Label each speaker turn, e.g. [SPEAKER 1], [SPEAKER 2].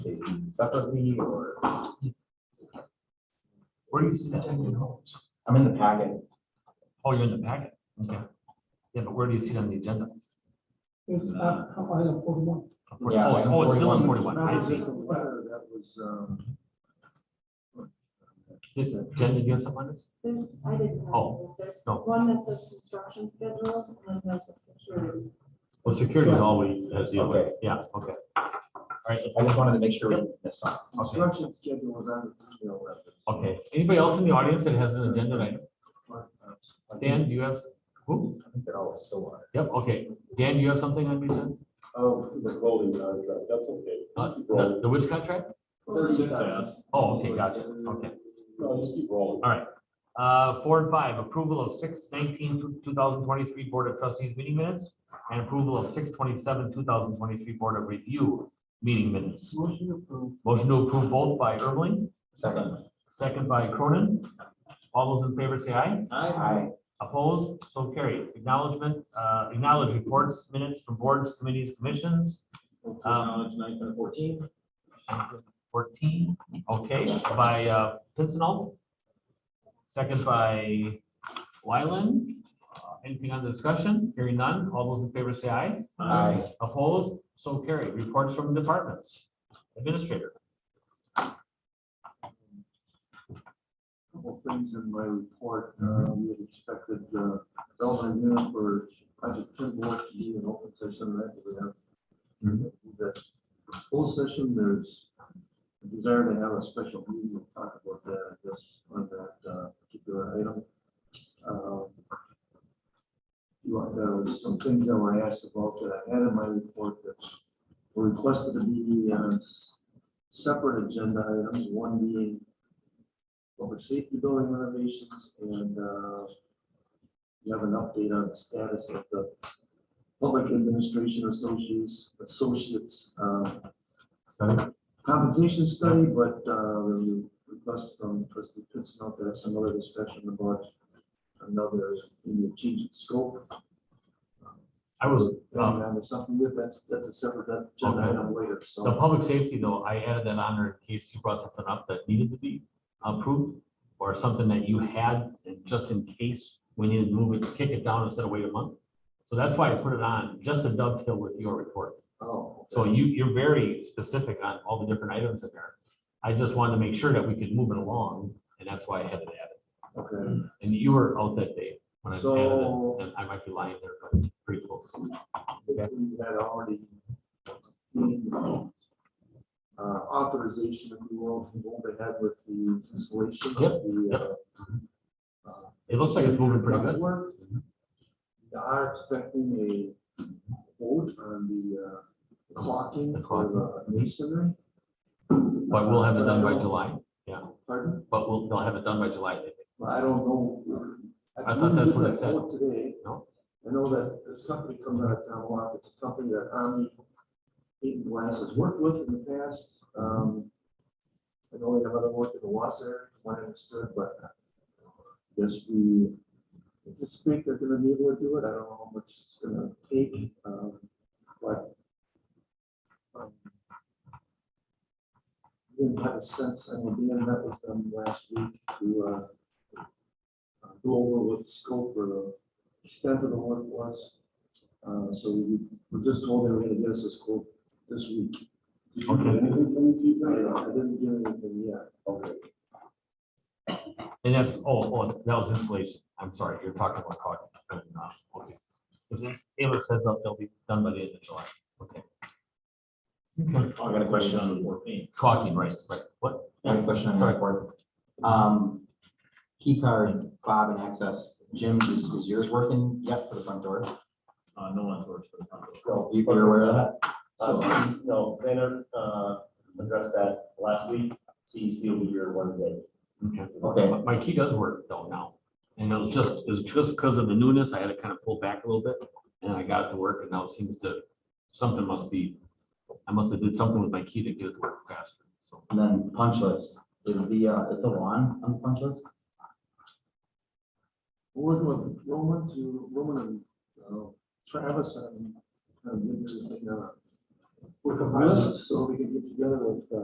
[SPEAKER 1] separately or?
[SPEAKER 2] Where do you see the ten million homes?
[SPEAKER 1] I'm in the packet.
[SPEAKER 2] Oh, you're in the packet. Okay. Yeah, but where do you see it on the agenda?
[SPEAKER 3] It's, uh, how about a forty-one?
[SPEAKER 2] Of course-
[SPEAKER 1] Yeah,
[SPEAKER 2] Oh, it's- oh, it's still in
[SPEAKER 1] 41.
[SPEAKER 2] forty-one. I see.
[SPEAKER 4] letter that was, um.
[SPEAKER 2] Did- Jen, did you have something on this?
[SPEAKER 5] There's, I didn't have,
[SPEAKER 2] Oh,
[SPEAKER 5] it. there's
[SPEAKER 2] no.
[SPEAKER 5] one that says construction schedules and then there's a security.
[SPEAKER 2] Well, security is always, as you
[SPEAKER 1] Okay.
[SPEAKER 2] yeah, okay. All right,
[SPEAKER 1] I just wanted to make sure we didn't miss something.
[SPEAKER 4] Construction schedule was on the email that.
[SPEAKER 2] okay. Anybody else in the audience that has an agenda item? Dan, do you have, who?
[SPEAKER 1] I think they're all still on.
[SPEAKER 2] Yep, okay. Dan, you have something on the agenda?
[SPEAKER 4] Oh, the clothing contract, that's okay.
[SPEAKER 2] Uh,
[SPEAKER 4] Keep
[SPEAKER 2] The
[SPEAKER 4] rolling.
[SPEAKER 2] the which contract?
[SPEAKER 4] Thirty seconds.
[SPEAKER 2] Oh, okay, gotcha. Okay.
[SPEAKER 4] No, just keep rolling.
[SPEAKER 2] All right. Uh, Four and five, approval of six nineteen, two thousand twenty-three Board of Trustees meeting minutes and approval of six twenty-seven, two thousand twenty-three Board of Review meeting minutes.
[SPEAKER 4] Motion approved.
[SPEAKER 2] Motion to approve both by Ermeling,
[SPEAKER 1] Second,
[SPEAKER 2] second by Cronin. All those in favor say aye.
[SPEAKER 1] I,
[SPEAKER 2] Opposed, so carried. Acknowledgement, uh, acknowledge reports, minutes from boards, committees, commissions. Um,
[SPEAKER 4] Acknowledge nine ten fourteen.
[SPEAKER 2] Fourteen, okay, by uh, Pincinel. Second by Wyland. Uh, Anything on the discussion? Hearing none. All those in favor say aye.
[SPEAKER 1] I,
[SPEAKER 2] Opposed? So carried. Reports from departments. Administrator.
[SPEAKER 4] Couple things in my report, uh, we had expected, uh, development unit for project Timberwolf to be an open session, right? We have that full session, there's a desire to have a special meeting, we'll talk about that, I guess, on that uh, particular item. Um, You want, there was some things that were asked about that I had in my report that were requested to be on s- separate agenda items, one being public safety building renovations and uh, you have an update on the status of the Public Administration Associates, Associates, uh, compensation study, but, uh, we request from trustee Pittsnell to have some other discussion about another, maybe a change in scope.
[SPEAKER 2] I was, uh,
[SPEAKER 4] And there's something with, that's, that's a separate agenda
[SPEAKER 2] Okay.
[SPEAKER 4] item later,
[SPEAKER 2] the
[SPEAKER 4] so.
[SPEAKER 2] public safety though, I added that on there in case you brought something up that needed to be approved or something that you had, and just in case we needed to move it, kick it down instead of wait a month. So that's why I put it on, just to dovetail with your report.
[SPEAKER 4] Oh,
[SPEAKER 2] So you, you're very specific on all the different items in there. I just wanted to make sure that we could move it along, and that's why I had it added.
[SPEAKER 4] Okay.
[SPEAKER 2] And you were out that day when I added
[SPEAKER 4] So-
[SPEAKER 2] it, and I might be lying there, but pretty close.
[SPEAKER 4] We had already made, uh, authorization, if you will, to go ahead with the installation
[SPEAKER 2] Yep,
[SPEAKER 4] of the,
[SPEAKER 2] yep.
[SPEAKER 4] uh, uh,
[SPEAKER 2] It looks like it's moving pretty good.
[SPEAKER 4] Ductwork. They are expecting a vote on the uh,
[SPEAKER 2] The
[SPEAKER 4] clocking
[SPEAKER 2] clock.
[SPEAKER 4] for the masonry.
[SPEAKER 2] But we'll have it done by July,
[SPEAKER 4] Pardon?
[SPEAKER 2] but we'll, they'll have it done by July.
[SPEAKER 4] Well, I don't know.
[SPEAKER 2] I thought that's what it said.
[SPEAKER 4] vote Today.
[SPEAKER 2] No?
[SPEAKER 4] I know that this company comes out of town lot, it's a company that Omni Eaton Glass has worked with in the past. Um, I know they have other work in the Wasser, one understood, but yes, we anticipate they're gonna be able to do it. I don't know how much it's gonna take, um, but um, didn't have a sense, I mean, Dan met with them last week to uh, uh, go over what the scope or the extent of the work was. Uh, So we were just told they were gonna get us a scope this week. Did you get
[SPEAKER 2] Okay.
[SPEAKER 4] anything from the people? I didn't get anything yet. Okay.
[SPEAKER 2] And that's, oh, oh, that was insulation. I'm sorry, you're talking about caulking. and, uh, okay. Taylor says that they'll be done by the end of July. Okay.
[SPEAKER 1] I got a question on the fourteen.
[SPEAKER 2] Caulking, right, right. What?
[SPEAKER 1] I have a question on the
[SPEAKER 2] Sorry.
[SPEAKER 1] report. Um, key card, Bob and access. Jim, is is yours working yet for the front door?
[SPEAKER 6] Uh, no one's worked for the company.
[SPEAKER 1] Well, You're aware of that?
[SPEAKER 6] Uh, so, no, Tanner, uh, addressed that last week, CEC will be here Wednesday.
[SPEAKER 2] Okay.
[SPEAKER 1] Okay,
[SPEAKER 2] My key does work though now. And it was just, it was just because of the newness, I had to kind of pull back a little bit and I got it to work and now it seems to, something must be, I must have did something with my key to get it to work faster. So
[SPEAKER 1] and then punch list. Is the, uh, is the lawn on the punch list?
[SPEAKER 4] We're working with Roman to, Roman and uh, Travis and, and, uh, work on this, so we can get together with, uh,